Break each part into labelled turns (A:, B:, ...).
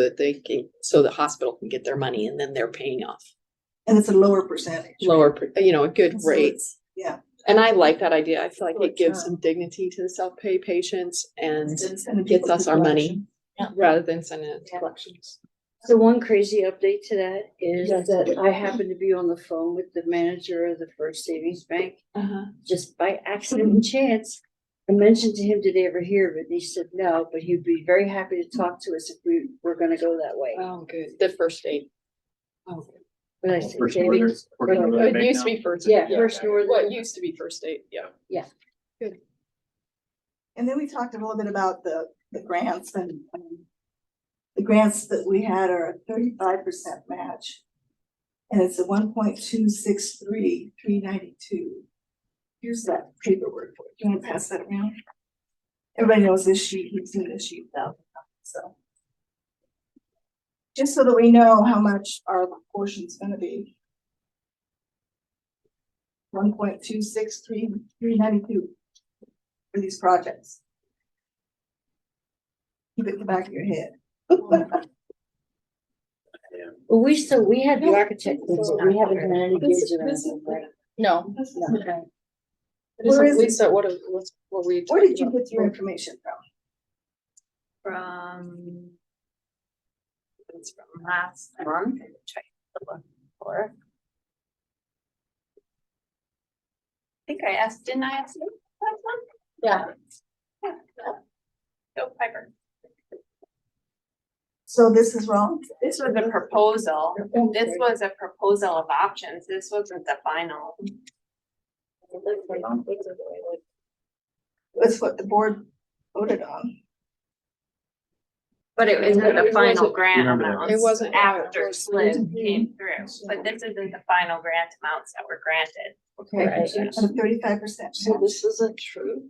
A: that they can, so the hospital can get their money and then they're paying off
B: And it's a lower percentage.
A: lower, per- you know, a good
B: So
A: rate.
B: it's- Yeah.
A: And I like that idea. I feel like
B: So
A: it
B: it's
A: gives
B: not-
A: some dignity to the self-pay patients and
B: it's gonna be
A: gets us our money
B: collection.
A: rather than sending it to
B: Yeah.
A: collections.
C: So one crazy update to that is
B: Yes.
C: that I happened to be on the phone with the manager of the First Savings Bank,
A: Uh-huh.
C: just by accident and chance. I mentioned to him, did they ever hear of it? And he said, no, but he'd be very happy to talk to us if we were gonna go that way.
A: Oh, good. The first aid. Oh, good.
C: But I said,
D: First
C: "Savings?"
D: Northern- First Northern
A: It
D: Bank
A: used to
D: now?
A: be first.
C: Yeah, First
A: What
C: Northern.
A: used to be first aid, yeah.
B: And then we talked a little bit about the, the grants and, um, the grants that we had are a thirty-five percent match. And it's a one point two six three, three ninety-two. Here's that paperwork. for it. Do you wanna pass that around? Everybody knows this sheet, we've seen this sheet though, so. Just so that we know how much our portion's gonna be. One point two six three, three ninety-two for these projects. Keep it in the back of your head.
C: Well, we still, we had the
A: No,
C: architect,
A: this is
C: so
A: not
C: we haven't
A: fair.
C: had any
A: This-
C: bids around
A: this is-
C: them, right?
E: No,
C: No.
B: Where is it?
A: Lisa, what, are- what's, what were you?
B: Where did
A: talking
B: you
A: about?
B: get your information from?
F: from. It's from last month. I'm trying to look for. I think I asked, didn't I ask you last month?
E: yeah,
F: Go Piper.
B: So this is wrong?
F: This was a proposal. This was a proposal of options. This wasn't the final.
B: That's what the board voted on.
F: But it wasn't the
A: It
F: final
A: wasn't-
F: grant
D: Remember that.
F: amount.
A: It wasn't-
F: After SLID
B: Mhm.
F: came through, but this isn't the final grant amounts that were granted.
B: Okay. At a thirty-five percent.
C: this isn't true?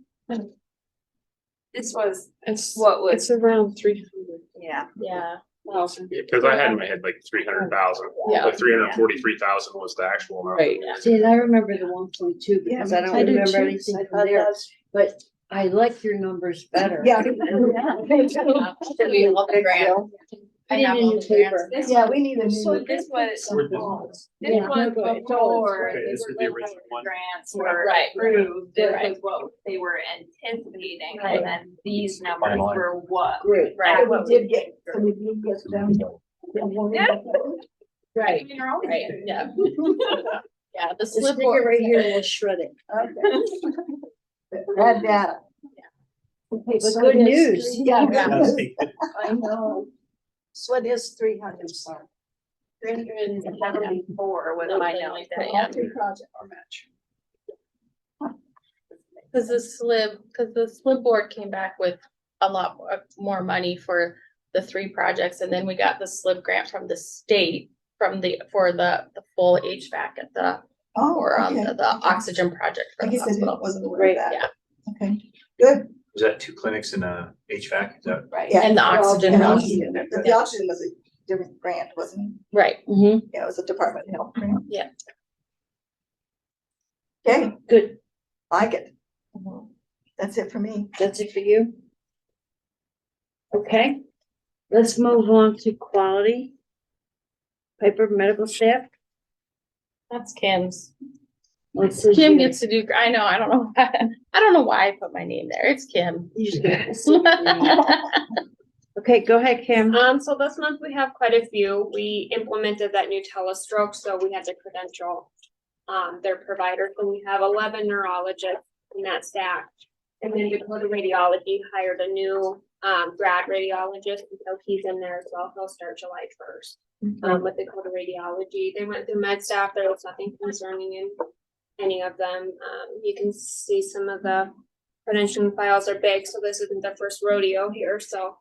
F: This was
A: It's,
F: what was,
A: it's around three hundred
F: yeah.
E: yeah.
A: thousand.
D: Yeah, cause I had in my head like three hundred thousand,
A: Yeah.
D: but three hundred and forty-three thousand was the actual amount.
A: Right.
C: See, and I remember the one point two because I don't remember anything from there, but I like your numbers better.
B: Yeah.
E: We love the grant.
C: I
E: I have
C: have
E: all
C: in
E: the
C: paper.
F: This
B: Yeah, we need a
F: So
B: new.
F: this was,
D: Where'd this one was?
F: this
C: Yeah.
F: was
C: Okay,
F: before
D: Okay, this is the
F: the
D: original one.
F: grants were
E: Right.
F: approved, this
E: Right.
F: was what they were anticipating,
E: Right.
F: and then these numbers
D: Timeline.
F: were what?
C: Great.
E: Right,
B: So We did get, so we did get them.
E: right, right, yeah. Yeah, the
C: This
E: slip.
C: figure right here will shred it.
B: Okay. Bad data. Okay,
C: But good news.
B: Yeah.
D: That's
B: That
D: the-
C: I know. So it is three hundred, sorry.
F: Three hundred and seventy-four was my
E: Something
F: note.
E: like that, yeah. Cause the slip, cause the slip board came back with a lot mo- uh, more money for the three projects, and then we got the slip grant from the state. From the, for the, the full HVAC at the,
B: Oh,
E: or um,
B: okay.
E: the the oxygen project
B: I
E: for the
B: guess I didn't,
E: hospital.
B: wasn't aware of
C: Right,
B: that.
E: yeah.
B: Okay, good.
D: Is that two clinics and a HVAC? Is that,
B: Right.
E: And the oxygen,
B: And
E: was-
B: oxygen, but the oxygen was a different grant, wasn't
E: right,
B: it? Yeah, it was a Department of Health grant.
E: Yeah.
B: Okay,
C: Good,
B: like it. That's it for me.
C: that's it for you? Okay, let's move on to quality. Piper medical staff.
E: that's Kim's.
C: What's this
E: Kim
C: here?
E: gets to do, I know, I don't know, why- I don't know why I put my name there, it's Kim.
C: You just get- Okay, go ahead, Kim.
E: Uh,
G: Um, so this month we have quite a few. We implemented that new telestroke, so we had to credential um, their provider, so we have eleven neurologists in that staff. And then Dakota Radiology hired a new um, grad radiologist, and so he's in there as well. He'll start July first. Um, with Dakota Radiology, they went through med staff. There was nothing concerning in any of them. Um, you can see some of the credentialing files are big, so this isn't the first rodeo here, so.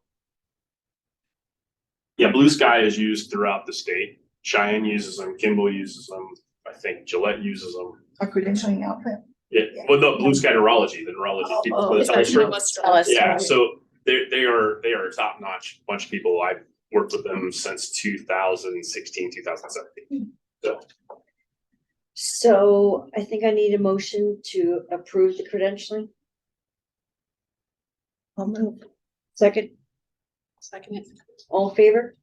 D: yeah, Blue Sky is used throughout the state. Cheyenne uses them, Kimball uses them, I think Gillette uses them.
B: Our credentialing outfit.
D: Yeah, well, no, Blue Sky Neurology, the neurology. people, but it's also- Yeah, so they they are they are a top notch bunch of people. I've worked with them since 2016, 2017.
C: So I think I need a motion to approve the credentialing. I'll move. Second,
A: Second.
C: All in favor?